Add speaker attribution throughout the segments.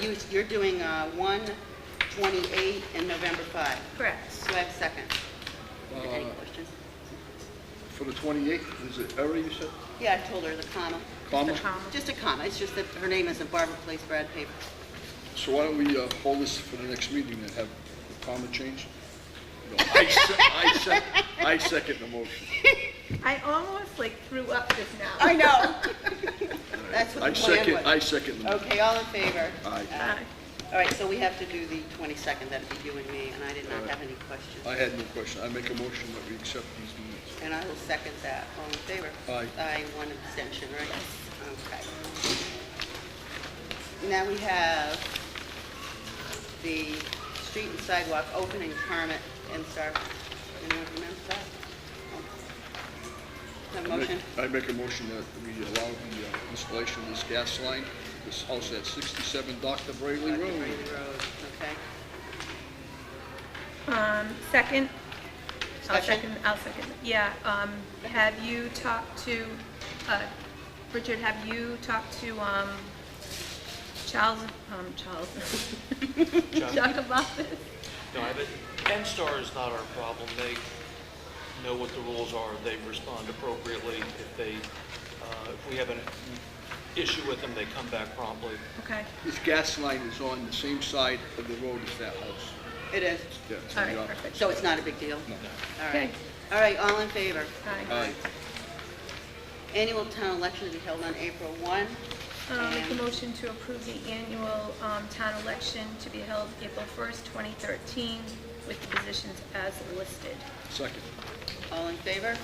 Speaker 1: You, you're doing, uh, one twenty-eight and November five.
Speaker 2: Correct.
Speaker 1: Do I have a second? Any
Speaker 3: Uh,
Speaker 1: questions?
Speaker 3: For the 28th, is it error you said?
Speaker 1: Yeah, I told her the comma.
Speaker 3: Comma?
Speaker 2: Just a comma.
Speaker 1: Just a comma, it's just that her name isn't Barbara Place Brad Paper.
Speaker 3: So why don't we uh, hold this for the next meeting and have the comma changed? No, I se- I se- I second the motion.
Speaker 2: I almost like threw up just now.
Speaker 1: I know. That's what
Speaker 3: I
Speaker 1: the plan
Speaker 3: second,
Speaker 1: was.
Speaker 3: I second the motion.
Speaker 1: Okay, all in favor?
Speaker 3: Aye.
Speaker 2: Aye.
Speaker 1: All right, so we have to do the 22nd, that'd be you and me, and I did not have any
Speaker 3: I
Speaker 1: questions.
Speaker 3: had no question. I make a motion that we accept these minutes.
Speaker 1: And I will second that, all in favor?
Speaker 3: Aye.
Speaker 1: Aye, one abstention, right? Okay. Now we have the street and sidewalk opening permit and start, anyone remember that? Have a
Speaker 3: I make-
Speaker 1: motion?
Speaker 3: I make a motion that we allow the uh, installation of this gas line, this house at 67 Dr. Brayley
Speaker 1: Dr.
Speaker 3: Road.
Speaker 1: Brady Road, okay.
Speaker 2: Um, second? I'll
Speaker 1: Second?
Speaker 2: second, I'll second, yeah, um, have you talked to, uh, Richard, have you talked to, um, Charles, um, Charles? Chuck about this?
Speaker 4: No, but N-Star is not our problem. They know what the rules are. They respond appropriately. If they, uh, if we have an issue with them, they come back promptly.
Speaker 2: Okay,
Speaker 3: This gas line is on the same side of the road as that house.
Speaker 1: It is,
Speaker 3: Yeah, it's
Speaker 2: all
Speaker 3: on the
Speaker 2: right,
Speaker 3: opposite.
Speaker 2: perfect.
Speaker 1: so it's not a big deal?
Speaker 3: No.
Speaker 1: All right.
Speaker 2: Okay.
Speaker 1: All right, all in favor?
Speaker 2: Aye.
Speaker 3: Aye.
Speaker 1: Annual town election to be held on April 1.
Speaker 2: Um, make a
Speaker 1: And-
Speaker 2: motion to approve the annual, um, town election to be held April first, twenty thirteen, with the positions as listed.
Speaker 3: Second.
Speaker 1: All in favor?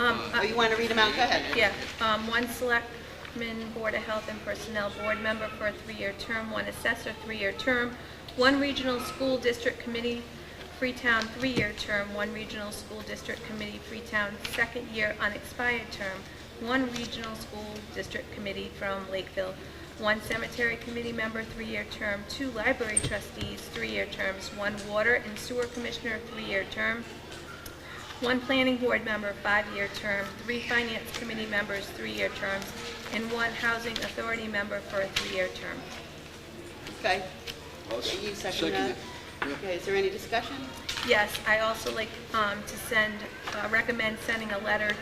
Speaker 2: Um,
Speaker 1: Oh, you want to read them out? Go ahead.
Speaker 2: Yeah, um, one selectman, Board of Health and Personnel Board member for a three-year term, one assessor, three-year term, one regional school district committee, Freetown, three-year term, one regional school district committee, Freetown, second-year unexpired term, one regional school district committee from Lakeville, one cemetery committee member, three-year term, two library trustees, three-year terms, one water and sewer commissioner, three-year term, one planning board member, five-year term, three finance committee members, three-year terms, and one housing authority member for a three-year term.
Speaker 1: Okay.
Speaker 3: I'll s-
Speaker 1: You second
Speaker 3: second
Speaker 1: that?
Speaker 3: it. Yeah.
Speaker 1: Okay, is there any discussion?
Speaker 2: Yes, I also like um, to send, uh, recommend sending a letter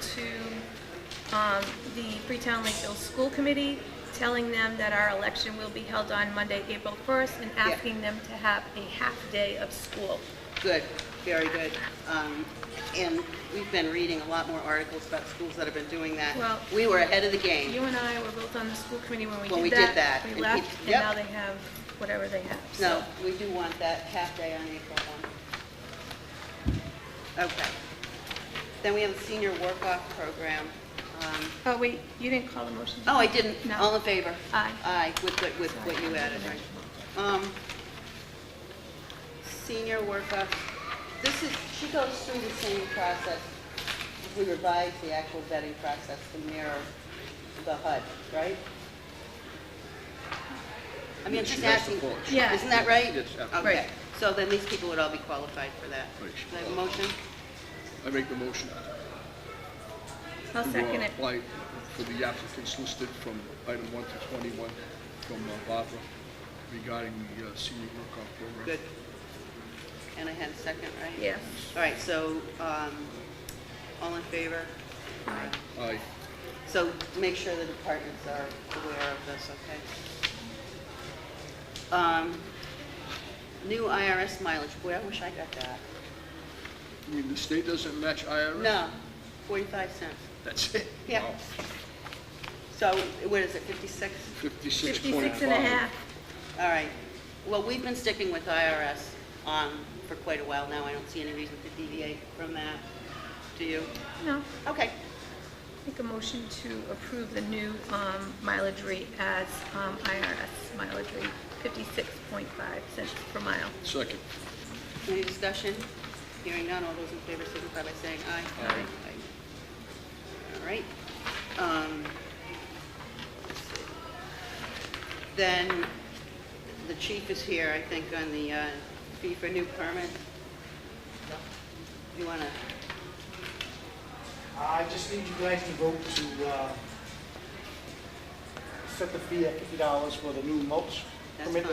Speaker 2: to um, the Freetown Lakeville School Committee, telling them that our election will be held on Monday, April 1st, and asking them to have a half-day of school.
Speaker 1: Good, very good. Um, And we've been reading a lot more articles about schools that have been doing that.
Speaker 2: Well-
Speaker 1: We were ahead of the
Speaker 2: You
Speaker 1: game.
Speaker 2: and I were both on the school committee when we did that.
Speaker 1: When we did that, and
Speaker 2: We
Speaker 1: keep-
Speaker 2: left, and
Speaker 1: yep.
Speaker 2: now they have whatever they have. so.
Speaker 1: No, we do want that half day on April 1. Okay. Then we have the senior work-off program. Um,
Speaker 2: Oh, wait, you didn't call the motion.
Speaker 1: Oh, I didn't.
Speaker 2: No.
Speaker 1: All in favor?
Speaker 2: Aye.
Speaker 1: Aye, with, the- with what you added, right? Um, Senior workup, this is, she goes through the same process. We revised the actual vetting process to mirror the HUD, right? I mean, I'm
Speaker 3: She
Speaker 1: just
Speaker 3: has to
Speaker 1: asking,
Speaker 3: qualify.
Speaker 2: Yeah.
Speaker 1: isn't that right?
Speaker 3: Yes, absolutely.
Speaker 1: Okay, so then these people would all be qualified for that.
Speaker 3: Right.
Speaker 1: Do I have a motion?
Speaker 3: I make the motion. to, uh,
Speaker 2: I'll second it.
Speaker 3: Apply for the applicants listed from item 1 to 21 from uh, Barbara regarding the uh, senior workoff program.
Speaker 1: Good. And I had a second, right?
Speaker 2: Yes.
Speaker 1: All right, so, um, all in favor?
Speaker 3: Aye.
Speaker 1: So make sure the departments are aware of this, okay? Um, new IRS mileage, boy, I wish I got that.
Speaker 3: I mean, the state doesn't match IRS?
Speaker 1: No, forty-five cents.
Speaker 3: That's it?
Speaker 1: Yeah.
Speaker 3: Wow.
Speaker 1: So what is it, fifty-six?
Speaker 2: 56
Speaker 3: 56.5.
Speaker 2: and a half.
Speaker 1: All right. Well, we've been sticking with IRS, um, for quite a while now. I don't see any reason to deviate from that. Do you?
Speaker 2: No,
Speaker 1: Okay.
Speaker 2: make a motion to approve the new um, mileage rate as um, IRS mileage rate, 56.5 cents per mile.
Speaker 3: Second.
Speaker 1: Any discussion? Hearing none, all those in favor signify by saying aye.
Speaker 3: Aye.
Speaker 1: Aye. All right. Um, let's see. Then, the chief is here, I think, on the uh, fee for new permit. You want to,
Speaker 5: I just need you guys to vote to uh, set the fee at fifty dollars for the new mulch
Speaker 1: That's
Speaker 5: permit that
Speaker 1: fine.